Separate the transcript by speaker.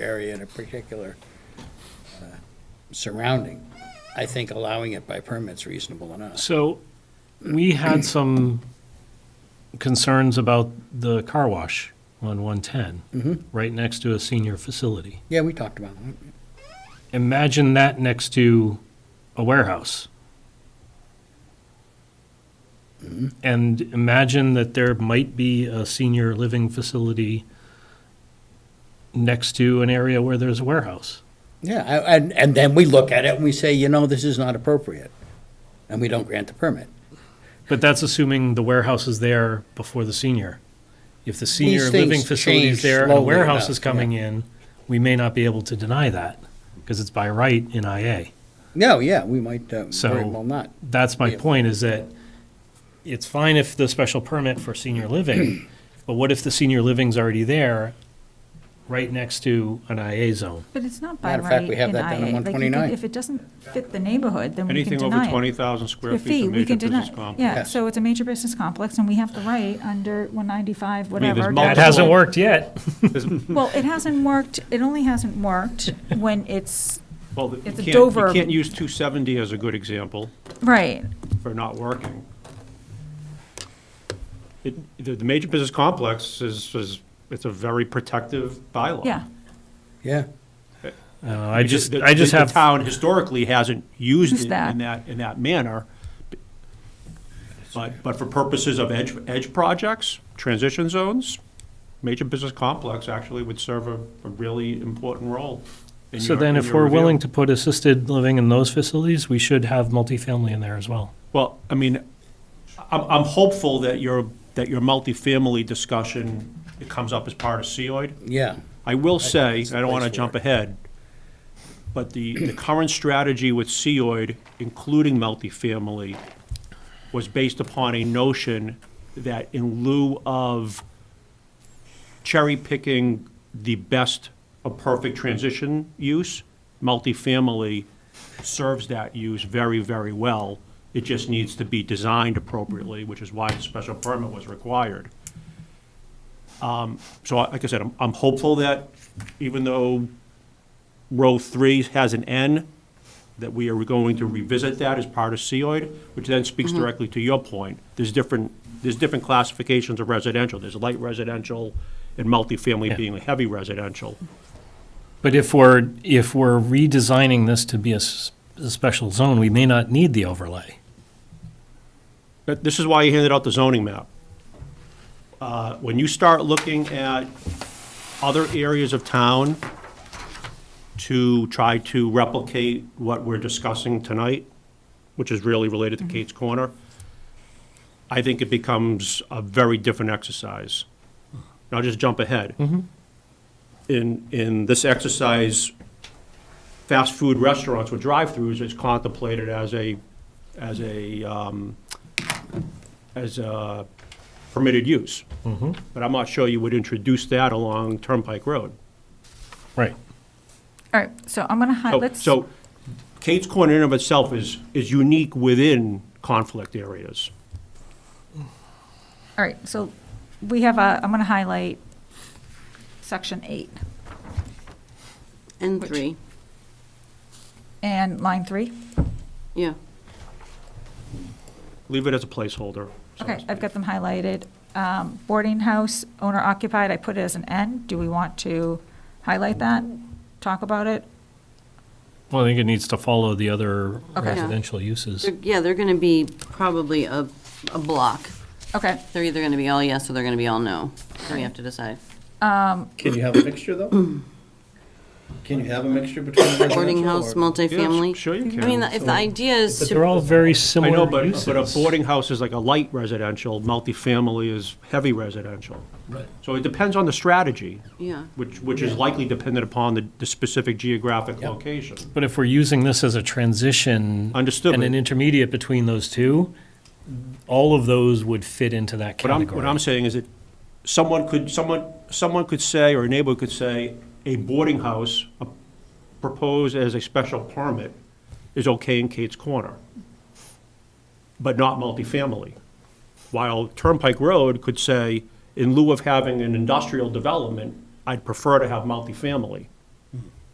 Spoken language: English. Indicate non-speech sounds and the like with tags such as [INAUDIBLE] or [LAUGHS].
Speaker 1: area in a particular uh, surrounding, I think allowing it by permit's reasonable enough.
Speaker 2: So we had some concerns about the car wash on 110, right next to a senior facility.
Speaker 1: Yeah, we talked about that.
Speaker 2: Imagine that next to a warehouse. And imagine that there might be a senior living facility next to an area where there's a warehouse.
Speaker 1: Yeah, I- and, and then we look at it and we say, you know, this is not appropriate, and we don't grant the permit.
Speaker 2: But that's assuming the warehouse is there before the senior. If the senior
Speaker 1: things
Speaker 2: living facility
Speaker 1: change
Speaker 2: is there and a
Speaker 1: slowly
Speaker 2: warehouse
Speaker 1: enough,
Speaker 2: is coming in, we may not be able to deny that because it's by right in IA.
Speaker 1: No, yeah, we might uh, very
Speaker 2: So-
Speaker 1: well not.
Speaker 2: That's my
Speaker 1: Yeah.
Speaker 2: point is that it's fine if the special permit for
Speaker 1: [CLEARS THROAT]
Speaker 2: senior living, but what if the senior living's already there right next to an IA zone?
Speaker 3: But it's not by
Speaker 1: Matter of
Speaker 3: right
Speaker 1: fact,
Speaker 3: in
Speaker 1: we
Speaker 3: IA.
Speaker 1: have that down in
Speaker 3: Like, you could-
Speaker 1: 129.
Speaker 3: If it doesn't fit the neighborhood, then we can
Speaker 4: Anything
Speaker 3: deny it.
Speaker 4: over 20,000 square
Speaker 3: Your
Speaker 4: feet is
Speaker 3: we
Speaker 4: a major
Speaker 3: can deny-
Speaker 4: business complex.
Speaker 3: Yeah,
Speaker 1: Yes.
Speaker 3: so it's a major business complex, and we have the right under 195,
Speaker 4: mean, there's
Speaker 3: whatever.
Speaker 4: That
Speaker 2: That
Speaker 4: Multiple-
Speaker 2: hasn't worked
Speaker 4: [LAUGHS]
Speaker 2: yet.
Speaker 3: Well, it hasn't worked, it only hasn't
Speaker 4: [LAUGHS]
Speaker 3: worked when it's,
Speaker 4: Well, the-
Speaker 3: It's a
Speaker 4: you can't,
Speaker 3: Dover-
Speaker 4: you can't use 270 as a good example
Speaker 3: right,
Speaker 4: for not working. It, the, the major business complex is, is, it's a very protective bylaw.
Speaker 3: yeah.
Speaker 1: Yeah,
Speaker 2: Uh, I
Speaker 4: Because
Speaker 2: just,
Speaker 4: the-
Speaker 2: I just
Speaker 4: the-
Speaker 2: have.
Speaker 4: The town historically hasn't used
Speaker 3: Used
Speaker 4: it
Speaker 3: that.
Speaker 4: in that, in that manner. But, but for purposes of edge, edge projects, transition zones, major business complex actually would serve a, a really important role. in
Speaker 2: So
Speaker 4: your-
Speaker 2: then
Speaker 4: in
Speaker 2: if
Speaker 4: your
Speaker 2: we're
Speaker 4: review.
Speaker 2: willing to put assisted living in those facilities, we should have multifamily in there as well.
Speaker 4: Well, I mean, I'm, I'm hopeful that your, that your multifamily discussion it comes up as part of COID.
Speaker 1: yeah,
Speaker 4: I will say,
Speaker 1: it's a
Speaker 4: I don't want to
Speaker 1: place for
Speaker 4: jump
Speaker 1: it.
Speaker 4: ahead, but the, the current strategy with COID, including multifamily, was based upon a notion that in lieu of cherry picking the best, a perfect transition use, multifamily serves that use very, very well. It just needs to be designed appropriately, which is why the special permit was required. So, I- like I said, I'm, I'm hopeful that even though row three has an N, that we are going to revisit that as part of COID, which then speaks directly to your point. There's different, there's different classifications of residential. There's light residential and multifamily
Speaker 2: Yeah.
Speaker 4: being heavy residential.
Speaker 2: But if we're, if we're redesigning this to be a, s- a special zone, we may not need the overlay.
Speaker 4: But this is why you handed out the zoning map. Uh, When you start looking at other areas of town to try to replicate what we're discussing tonight, which is really related to Kate's Corner, I think it becomes a very different exercise. And I'll just jump ahead. In, in this exercise, fast food restaurants with drive-throughs is contemplated as a, as a, um, as a permitted use.
Speaker 2: Mm-hmm.
Speaker 4: But I'm not sure you would introduce that along Turnpike Road.
Speaker 2: Right.
Speaker 3: All right, so I'm going to, hi-
Speaker 4: So-
Speaker 3: Uh, let's,
Speaker 4: Oh, So Kate's Corner in and of itself is, is unique within conflict areas.
Speaker 3: all right, so we have a, I'm going to highlight section eight
Speaker 5: And
Speaker 3: Which-
Speaker 5: three,
Speaker 3: and line three.
Speaker 5: yeah.
Speaker 4: Leave it as a placeholder. so to
Speaker 3: Okay, I've
Speaker 4: speak.
Speaker 3: got them highlighted. Um, Boarding house, owner occupied, I put it as an N. Do we want to highlight that? Talk about it?
Speaker 2: Well, I think it needs to follow the other
Speaker 3: Okay.
Speaker 2: residential uses.
Speaker 5: They're- Yeah, they're going to be probably a, a block.
Speaker 3: Okay,
Speaker 5: They're either going to be all yes or they're going to be all no. So we have to decide.
Speaker 1: Can you have a mixture,
Speaker 5: [CLEARS THROAT]
Speaker 1: though? Can you have a mixture between residential
Speaker 5: Boarding house, multifamily.
Speaker 4: Yeah, sure you
Speaker 5: I mean,
Speaker 4: can.
Speaker 5: if the idea is
Speaker 2: But they're all
Speaker 5: to,
Speaker 2: very
Speaker 4: I
Speaker 2: similar
Speaker 4: know, but,
Speaker 2: uses.
Speaker 4: but a boarding house is like a light residential, multifamily is heavy residential. Right. So it depends on the strategy,
Speaker 5: yeah,
Speaker 4: which, which is likely dependent upon the, the specific geographic location.
Speaker 2: But if we're using this as a transition
Speaker 4: Understood,
Speaker 2: and
Speaker 4: but-
Speaker 2: an intermediate between those two, all of those would fit into that
Speaker 4: What I'm, what
Speaker 2: category.
Speaker 4: I'm saying is that someone could, someone, someone could say, or a neighbor could say, a boarding house uh, proposed as a special permit is okay in Kate's Corner, but not multifamily. While Turnpike Road could say, in lieu of having an industrial development, I'd prefer to have multifamily.